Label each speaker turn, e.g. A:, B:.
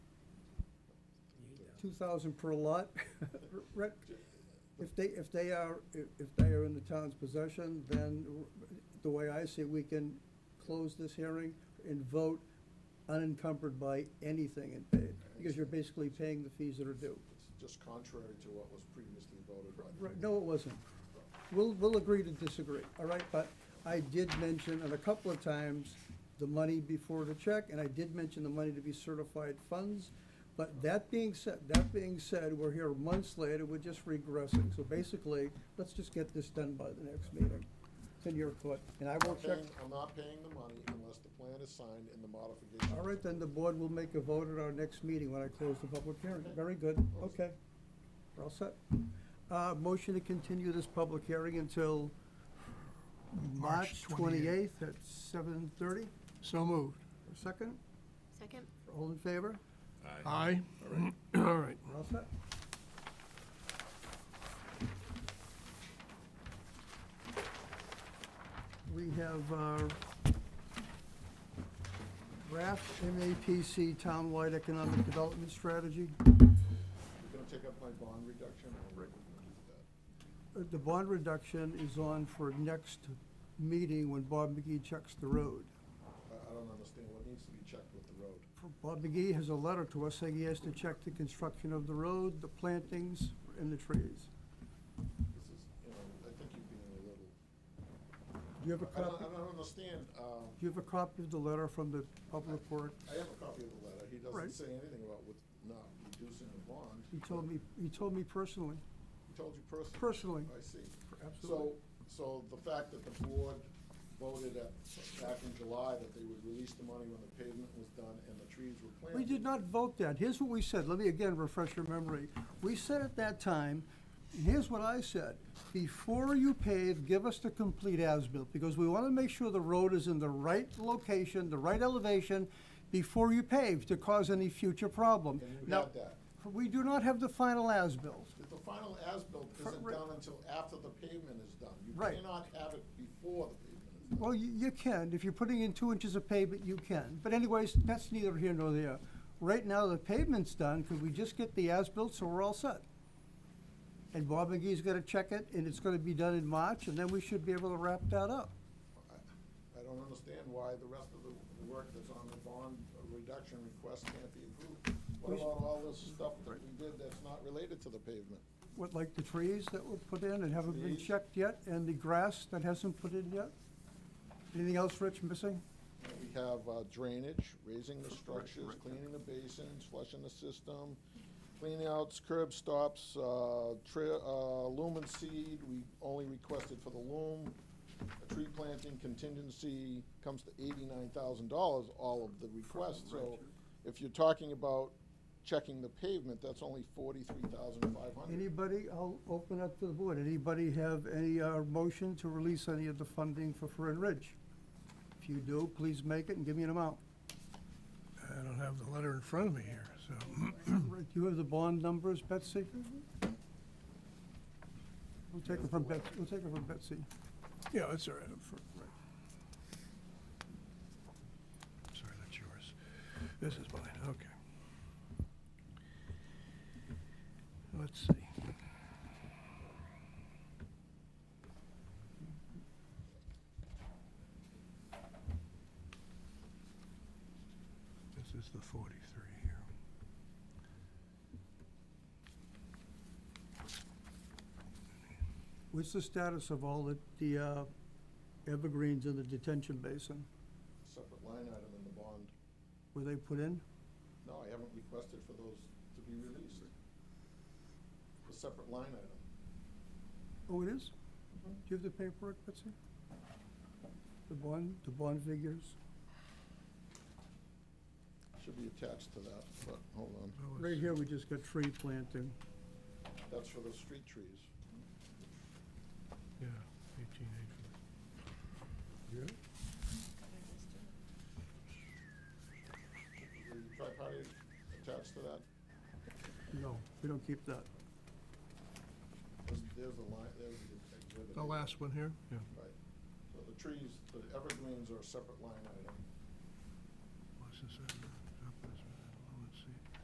A: two thousand per lot, Rick, if they, if they are, if if they are in the town's possession, then the way I see it, we can close this hearing and vote unencumbered by anything and paid, because you're basically paying the fees that are due.
B: It's just contrary to what was previously voted
A: Right,
B: on.
A: no, it wasn't. We'll, we'll agree to disagree, all right? But I did mention, and a couple of times, the money before the check, and I did mention the money to be certified funds. But that being said, that being said, we're here months later, we're just regressing. So basically, let's just get this done by the next meeting. It's in your court, and I will
B: I'm
A: check.
B: paying, I'm not paying the money unless the plan is signed and the modification.
A: All right, then the board will make a vote at our next meeting when I close the public hearing. Very good, okay. We're all set. Uh, motion to continue this public hearing until March
C: March 28th.
A: twenty-eighth at seven thirty.
C: So moved.
A: Second,
D: Second?
A: all in favor?
C: Aye. All right.
A: We're all set. We have uh, draft MAPC Townwide Economic Development Strategy.
B: You're gonna take up my bond reduction or we're gonna do that?
A: Uh, The bond reduction is on for next meeting when Bob McGee checks the road.
B: I, I don't understand what needs to be checked with the road.
A: Bob McGee has a letter to us saying he has to check the construction of the road, the plantings, and the trees.
B: This is, you know, I think you're being a little,
A: Do you have a
B: I don't,
A: copy,
B: I
A: do
B: don't understand, um,
A: you have a copy of the letter from the public works?
B: I have a copy of the letter. He
A: Right.
B: doesn't say anything about with, not reducing the bond.
A: He told me, he told me personally,
B: He told you
A: personally,
B: personally. I see.
A: absolutely.
B: So, so the fact that the board voted at, back in July that they would release the money when the pavement was done and the trees were planted.
A: We did not vote that. Here's what we said. Let me again refresh your memory. We said at that time, and here's what I said. Before you pave, give us the complete as-built, because we want to make sure the road is in the right location, the right elevation, before you pave, to cause any future problem.
B: And you
A: Now,
B: had that.
A: we do not have the final as-built.
B: But The final as-built isn't
A: Correct.
B: done until after the pavement is done. You
A: Right.
B: cannot have it before the pavement is done.
A: Well, you, you can, if you're putting in two inches of pavement, you can, but anyways, that's neither here nor there. Right now, the pavement's done, could we just get the as-built, so we're all set? And Bob McGee's gonna check it, and it's gonna be done in March, and then we should be able to wrap that up.
B: I- I don't understand why the rest of the the work that's on the bond reduction request can't be approved. What
A: We should-
B: about all this stuff that we did that's not related to the pavement?
A: What, like the trees that were put in and haven't been
B: Trees.
A: checked yet, and the grass that hasn't put in yet? Anything else, Rich, missing?
B: We have uh, drainage, raising the structures, cleaning the basins, flushing the system, clean outs, curb stops, uh, tri- uh, lumen seed, we only requested for the loom. A Tree planting contingency comes to eighty-nine thousand dollars, all of the requests, so if you're talking about checking the pavement, that's only forty-three thousand five hundred.
A: Anybody, I'll open up to the board, anybody have any, uh, motion to release any of the funding for Fern Ridge? If you do, please make it and give me an amount.
C: I don't have the letter in front of me here, so.
A: Right, Do you have the bond numbers, Betsy? We'll take it from Betsy, we'll take it from Betsy.
C: Yeah, that's all right. up front, right. Sorry, that's yours. This is mine, okay. Let's see. This is the 43 here.
A: What's the status of all the, the, uh, evergreens in the detention basin?
B: Separate line item in the bond.
A: Were they put in?
B: No, I haven't requested for those to be released. A separate line item.
A: Oh, it is? Do you have the paperwork, Betsy? The bond, the bond figures?
B: Should be attached to that, but hold on.
C: Oh,
A: Right
C: it's-
A: here, we just got tree planting.
B: That's for the street trees.
C: Yeah, 1884. Yeah?
B: The tripartite attached to that,
A: No, we don't keep that.
B: there's, there's the line, there's the exhibit.
C: The last one here? Yeah.
B: Right. So the trees, the evergreens are a separate line item.
C: What's this?